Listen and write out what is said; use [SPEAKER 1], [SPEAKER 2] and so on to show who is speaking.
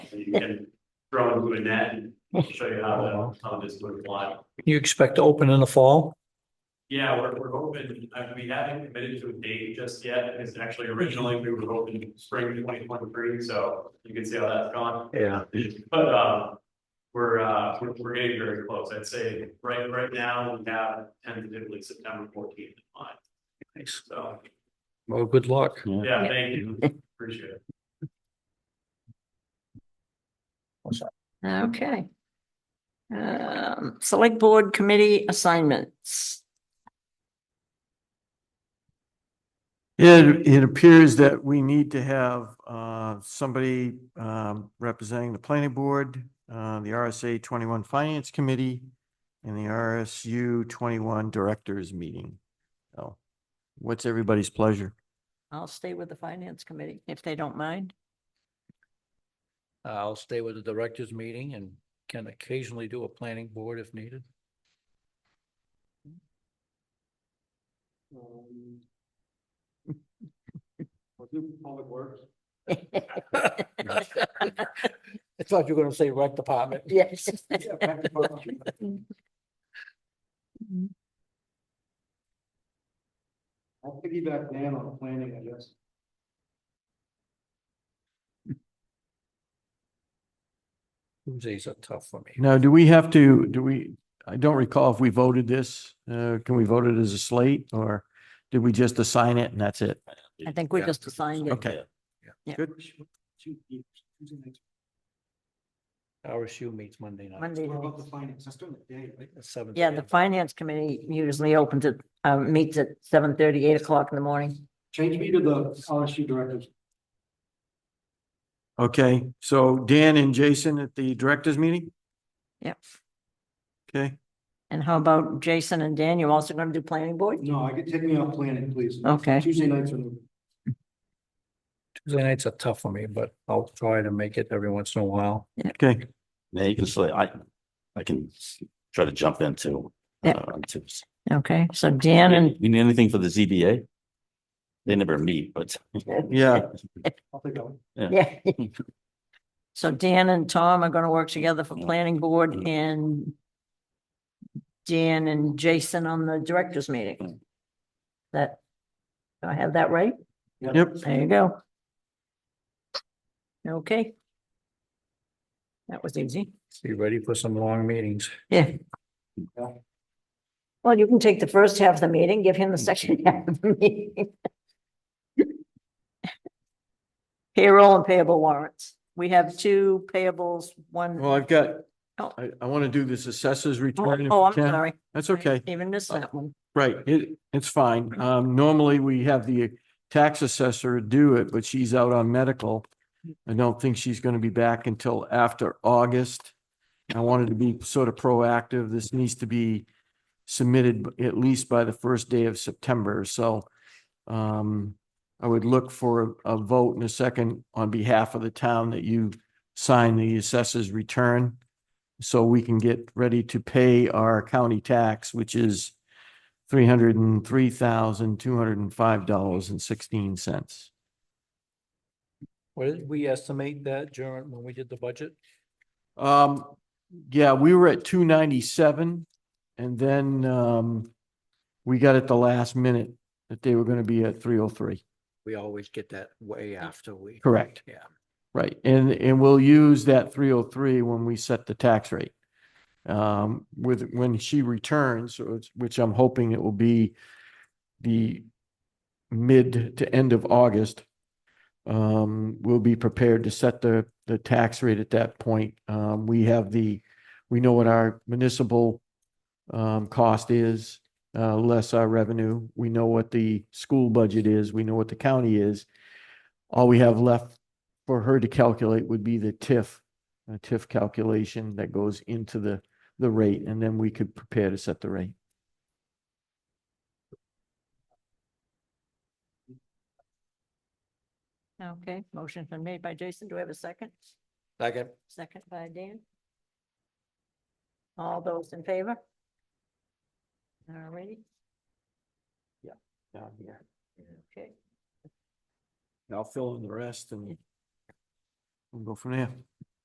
[SPEAKER 1] you can throw into a net and show you how that, how this would fly.
[SPEAKER 2] You expect to open in the fall?
[SPEAKER 1] Yeah, we're, we're hoping, I- we haven't committed to a date just yet, because actually originally we were hoping spring twenty twenty-three, so you can see how that's gone.
[SPEAKER 2] Yeah.
[SPEAKER 1] But, um, we're, uh, we're, we're getting very close, I'd say, right, right now, we have tentatively September fourteenth in mind. Thanks. So,
[SPEAKER 2] Well, good luck.
[SPEAKER 1] yeah, thank you, appreciate it.
[SPEAKER 3] Okay. Um, select board committee assignments.
[SPEAKER 4] It, it appears that we need to have, uh, somebody, um, representing the planning board, uh, the RSA twenty-one finance committee and the RSU twenty-one directors meeting. So what's everybody's pleasure?
[SPEAKER 3] I'll stay with the finance committee if they don't mind.
[SPEAKER 2] I'll stay with the directors meeting and can occasionally do a planning board if needed.
[SPEAKER 1] Um, Public Works.
[SPEAKER 2] I thought you were gonna say rec department.
[SPEAKER 3] Yes.
[SPEAKER 1] I'll piggyback Dan on planning, I guess.
[SPEAKER 2] Tuesdays are tough for me.
[SPEAKER 4] Now, do we have to, do we, I don't recall if we voted this, uh, can we vote it as a slate or did we just assign it and that's it?
[SPEAKER 3] I think we just assigned it.
[SPEAKER 4] Okay.
[SPEAKER 3] Yeah.
[SPEAKER 4] Good.
[SPEAKER 2] RSU meets Monday night.
[SPEAKER 3] Monday night. What
[SPEAKER 2] about the finance? That's during the day, right? Seven.
[SPEAKER 3] Yeah, the finance committee usually opens it, uh, meets at seven thirty, eight o'clock in the morning.
[SPEAKER 5] Change me to the RSU director.
[SPEAKER 4] Okay, so Dan and Jason at the directors meeting?
[SPEAKER 3] Yep.
[SPEAKER 4] Okay,
[SPEAKER 3] And how about Jason and Dan? You're also gonna do planning board?
[SPEAKER 5] No, I could take me off planning, please.
[SPEAKER 3] Okay,
[SPEAKER 5] Tuesday nights are,
[SPEAKER 2] Tuesday nights are tough for me, but I'll try to make it every once in a while.
[SPEAKER 4] okay.
[SPEAKER 6] Yeah, you can say, I, I can s- try to jump into. uh,
[SPEAKER 3] Yeah. okay. So Dan and,
[SPEAKER 6] You need anything for the ZBA? They never meet, but.
[SPEAKER 4] Yeah.
[SPEAKER 5] I'll take that one.
[SPEAKER 3] yeah. So Dan and Tom are gonna work together for planning board and Dan and Jason on the directors meeting. That, do I have that right?
[SPEAKER 4] Yep.
[SPEAKER 3] There you go. Okay. That was easy.
[SPEAKER 2] Be ready for some long meetings.
[SPEAKER 3] Yeah. Well, you can take the first half of the meeting, give him the second half of the meeting. Payroll and payable warrants. We have two payables, one,
[SPEAKER 4] Well, I've got,
[SPEAKER 3] Oh.
[SPEAKER 4] I, I want to do this assessors
[SPEAKER 3] oh,
[SPEAKER 4] return. if
[SPEAKER 3] oh,
[SPEAKER 4] we
[SPEAKER 3] I'm
[SPEAKER 4] can.
[SPEAKER 3] sorry.
[SPEAKER 4] That's
[SPEAKER 3] I
[SPEAKER 4] okay.
[SPEAKER 3] Even missed that one.
[SPEAKER 4] Right. It, it's fine. Um, normally we have the tax assessor do it, but she's out on medical. I don't think she's going to be back until after August. I wanted to be sort of proactive. This needs to be submitted b- at least by the first day of September. So um, I would look for a a vote in a second on behalf of the town that you sign the assessor's return so we can get ready to pay our county tax, which is three hundred and three thousand, two hundred and five dollars and sixteen cents.
[SPEAKER 2] What did we estimate that during, when we did the budget?
[SPEAKER 4] Um, yeah, we were at two ninety-seven and then, um, we got at the last minute that they were gonna be at three oh three.
[SPEAKER 2] We always get that way after we.
[SPEAKER 4] Correct.
[SPEAKER 2] Yeah.
[SPEAKER 4] Right, and, and we'll use that three oh three when we set the tax rate. Um, with, when she returns, so it's- which I'm hoping it will be the mid to end of August. Um, we'll be prepared to set the, the tax rate at that point. Um, we have the, we know what our municipal um, cost is, uh, less our revenue. We know what the school budget is, we know what the county is. All we have left for her to calculate would be the TIF, a TIF calculation that goes into the, the rate, and then we could prepare to set the rate.
[SPEAKER 3] Okay, motion's been made by Jason. Do we have a second?
[SPEAKER 2] Second.
[SPEAKER 3] Second by Dan. All those in favor? All righty,
[SPEAKER 4] Down here.
[SPEAKER 3] okay.
[SPEAKER 4] I'll fill in the rest and we'll go from there.